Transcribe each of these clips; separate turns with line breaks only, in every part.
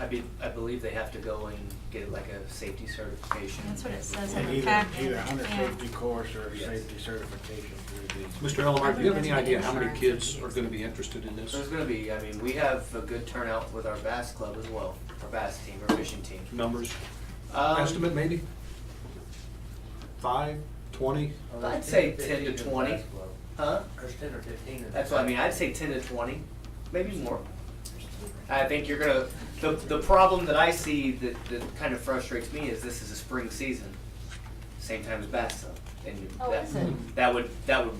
I be, I believe they have to go and get like a safety certification.
That's what it says in
And
the
Either,
packet,
either hunter
yeah.
safety course or
Yes.
safety certification through
Mr. Elmer, do you have any idea how many kids are gonna be interested in this?
So it's gonna be, I mean, we have a good turnout with our bass club as well, our bass team, our fishing team.
Numbers,
Um,
estimate maybe? Five, twenty?
I'd say ten to twenty, huh?
There's ten or fifteen. in
That's
the-
what I mean, I'd say ten to twenty, maybe more. I think you're gonna, the, the problem that I see that, that kind of frustrates me is this is a spring season, same time as bass though. And you-
Oh,
that-
is it?
That would, that would,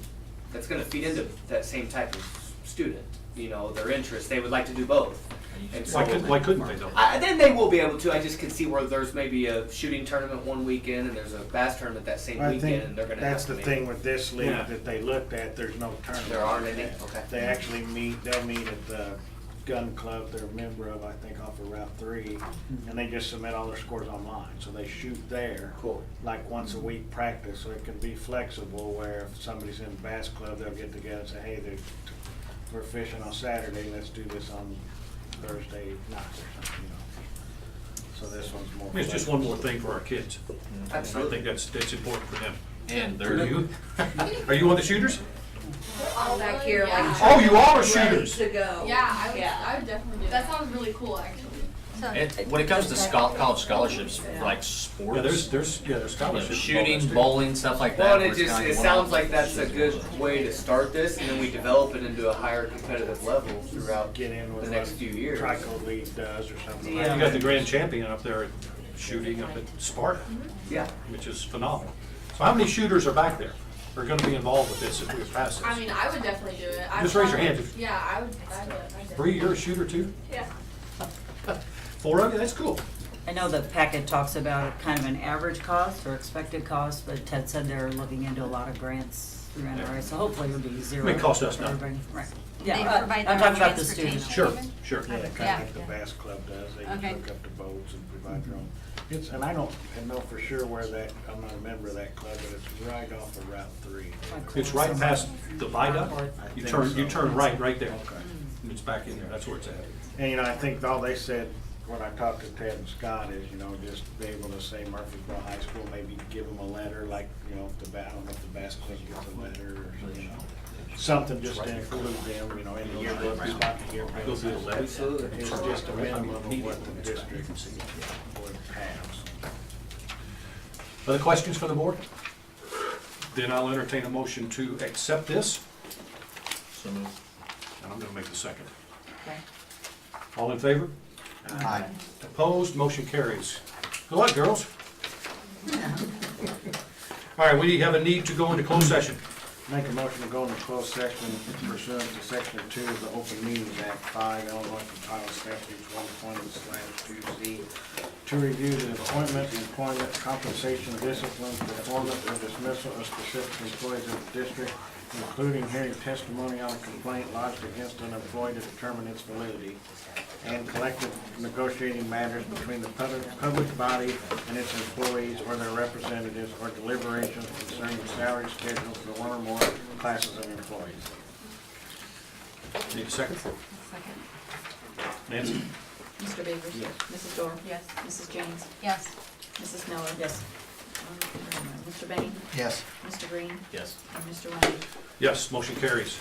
that's gonna feed into that same type of student, you know, their interest, they would like to do both. And so-
Why couldn't, why couldn't they though?
I, then they will be able to, I just can see where there's maybe a shooting tournament one weekend and there's a bass tournament that same
the. I
weekend
think
and they're gonna have
that's
to
the
make-
thing with this league
Yeah.
that they looked at, there's no tournament.
There aren't any? Okay.
They actually meet, they'll meet at the gun club they're a member of, I think off of Route Three, and they just submit all their scores online, so they shoot there.
Cool.
Like once a week practice, so it can be flexible where if somebody's in bass club, they'll get together and say, hey, they're, we're fishing on Saturday, let's do this on Thursday night or something, you know. So this one's more.
I mean, It's just one more thing for our kids. And I
Absolutely.
think that's, that's important for them.
And
Are
they're,
you, are you one of the shooters?
all back here
Yeah. Oh.
like
Oh, you all are shooters.
to go.
Yeah, I would,
Yeah.
I would definitely do that. That sounds really cool, actually.
So-
it- when it comes to scho- college scholarships, for, like sports,
Yeah, there's, there's, yeah, there's
you know,
scholarships.
shooting, bowling, stuff like
Well,
that.
and it
where it's
just,
kinda
it
like one
sounds
off.
like that's a good way to start this, and then we develop it into a higher competitive level throughout.
Get in with
The next
what
few years.
Trico League does or something like
Yeah.
that.
You got the grand champion up there at shooting up at Sparta,
Yeah.
which is phenomenal. So how many shooters are back there, are gonna be involved with this if we pass
I
this?
mean, I would definitely do it. I
Just raise your hand if-
Yeah, I would, I would, I would. definitely-
Bree, you're a shooter too?
Yeah.
Four of you, that's cool.
I know the packet talks about kind of an average cost or expected cost, but Ted said they're looking into a lot of grants through NRA, so hopefully it'll be zero.
It costs us
for
nothing.
everybody. Right.
They
Yeah,
provide
I- I'm
their own
talking about the students.
transportation.
Sure, sure.
Yeah, kind of
Yeah.
like the Bass Club does, they just
Okay.
hook up the boats and provide their own. It's, and I don't, I know for sure where that, I'm not a member of that club, but it's right off of Route Three.
It's right past the viaduct.
I
You
think
turn, you
so.
turn right, right there.
Okay.
And it's back in there, that's where it's at.
And, you know, I think all they said, when I talked to Ted and Scott, is, you know, just be able to say Murfreesboro High School, maybe give them a letter, like, you know, if the, ba- I don't know if the Bass Club gets a letter or, something, you know, something just to include them, you know, in the yearbook, it's not the yearbook.
Go through the levee.
Absolutely.
It's just a minimum of what the district would pass.
Other questions for the board? Then I'll entertain a motion to accept this,
So moved.
and I'm gonna make the second.
Okay.
All in favor? Opposed, motion carries. Good luck, girls. All right, we have a need to go into closed session.
Make a motion to go into closed session pursuant to section two of the Open Meetings Act five, Illinois Compiled Statutes one twenty slash two Z to review the appointment, employment, compensation, discipline, performance, or dismissal of specific employees of the district, including hearing testimony on a complaint lodged against an employee to determine its validity, and collective negotiating matters between the public, public body and its employees or their representatives, or deliberations concerning salary schedules for one or more classes of employees.
Need a second?
Second.
Nancy?
Mr. Beavers?
Yes.
Mrs. Dorr?
Yes.
Mrs. James?
Yes.
Mrs. Miller?
Yes.
Um, Mr. Bain?
Yes.
Mr. Green?
Yes.
And Mr. Wendy?
Yes, motion carries.